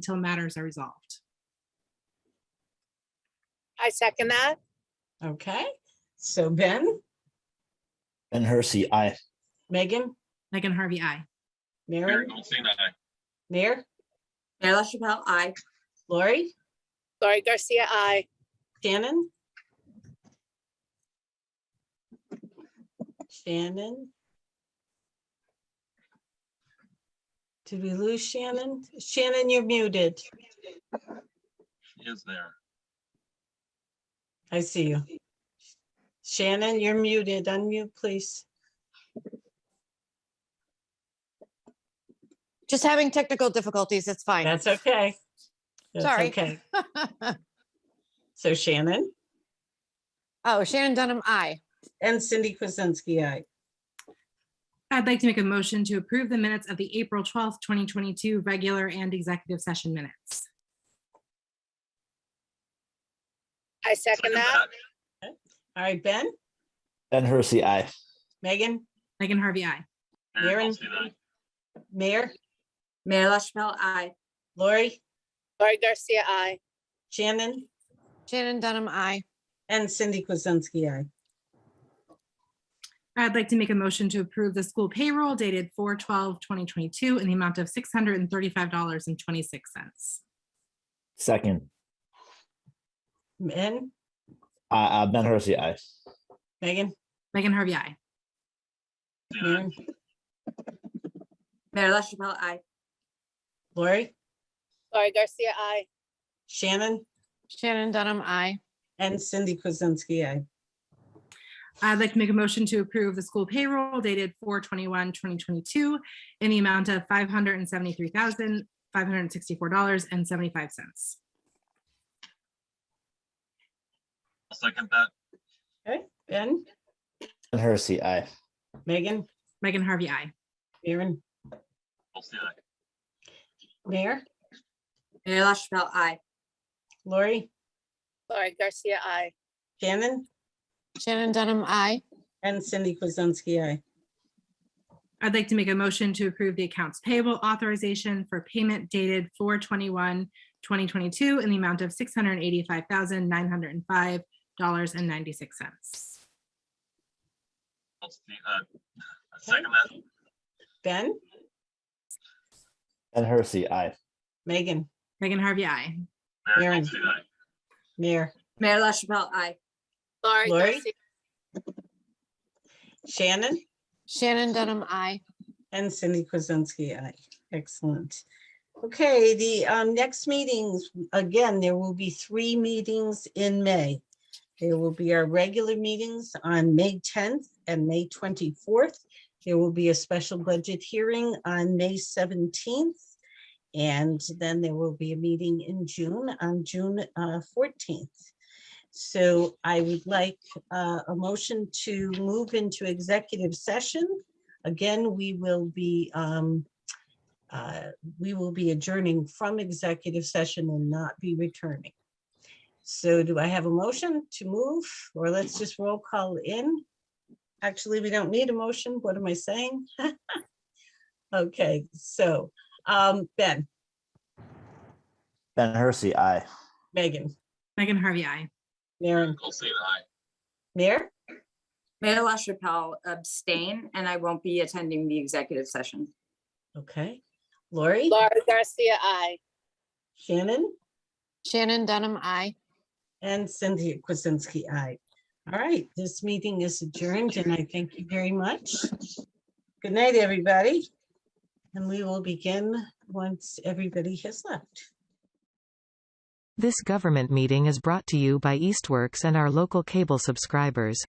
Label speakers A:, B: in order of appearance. A: until matters are resolved.
B: I second that.
C: Okay, so Ben,
D: Ben Hersey, I.
C: Megan,
A: Megan Harvey, I.
C: Mary,
E: Mary Goldstein, aye.
C: Mayor,
F: Mayor LaChapelle, aye.
C: Lori,
B: Lori Garcia, I.
C: Shannon? Shannon? Did we lose Shannon? Shannon, you're muted.
E: She is there.
C: I see you. Shannon, you're muted. Unmute, please.
G: Just having technical difficulties, it's fine.
C: That's okay. That's
G: Sorry.
C: okay. So Shannon
G: Oh, Shannon Dunham, I.
C: and Cindy Kuzensky, aye.
A: I'd like to make a motion to approve the minutes of the April 12th, 2022 regular and executive session minutes.
B: I second that.
C: All right, Ben,
D: Ben Hersey, I.
C: Megan,
A: Megan Harvey, I.
E: Mary
C: Maren.
E: Goldstein, aye.
C: Mayor,
F: Mayor LaChapelle, aye.
C: Lori,
B: Lori Garcia, I.
C: Shannon?
G: Shannon Dunham, I.
C: And Cindy Kuzensky, aye.
A: I'd like to make a motion to approve the school payroll dated 4/12/2022 in the amount of $635.26.
D: Second,
C: Ben,
D: uh, uh, Ben Hersey, I.
C: Megan,
A: Megan Harvey, I.
E: Goldstein, aye.
C: Maren,
F: Mayor LaChapelle, aye.
C: Lori,
B: Lori Garcia, I.
C: Shannon,
G: Shannon Dunham, I.
C: and Cindy Kuzensky, aye.
A: I'd like to make a motion to approve the school payroll dated 4/21/2022 in the amount of $573,564.75.
E: I'll second that.
C: Okay, Ben,
D: Ben Hersey, I.
C: Megan,
A: Megan Harvey, I.
C: Maren,
E: Goldstein, aye.
C: Mayor,
F: Mayor LaChapelle, aye.
C: Lori,
B: Lori Garcia, I.
C: Shannon,
G: Shannon Dunham, I.
C: and Cindy Kuzensky, aye.
A: I'd like to make a motion to approve the accounts payable authorization for payment dated 2022 in the amount of six hundred and eighty-five thousand, nine hundred and five dollars and ninety-six cents.
E: Goldstein, aye. I uh, second that.
C: Ben,
D: Ben Hersey, I.
C: Megan,
A: Megan Harvey, I.
E: Mary
C: Maren.
E: Goldstein, aye.
C: Mayor,
F: Mayor LaChapelle, aye.
B: Lori
C: Lori?
B: Garcia,
C: Shannon,
G: Shannon Dunham, I.
C: and Cindy Kuzensky, aye. Excellent. Okay, the um, next meetings, again, there will be three meetings in May. There will be our regular meetings on May 10th and May 24th. There will be a special budget hearing on May 17th. And then there will be a meeting in June, on June uh, 14th. So I would like uh, a motion to move into executive session. Again, we will be um, uh, we will be adjourning from executive session and not be returning. So do I have a motion to move, or let's just roll call in? Actually, we don't need a motion. What am I saying? Okay, so um, Ben,
D: Ben Hersey, I.
C: Megan,
A: Megan Harvey, I.
C: Maren,
E: Goldstein, aye.
C: Mayor?
F: Mayor LaChapelle abstain, and I won't be attending the executive session.
C: Okay, Lori,
B: Lori Garcia, I.
C: Shannon,
G: Shannon Dunham, I.
C: and Cynthia Kuzinski, aye. All right, this meeting is adjourned and I thank you very much. Good night, everybody. And we will begin once everybody has left.
H: This government meeting is brought to you by Eastworks and our local cable subscribers.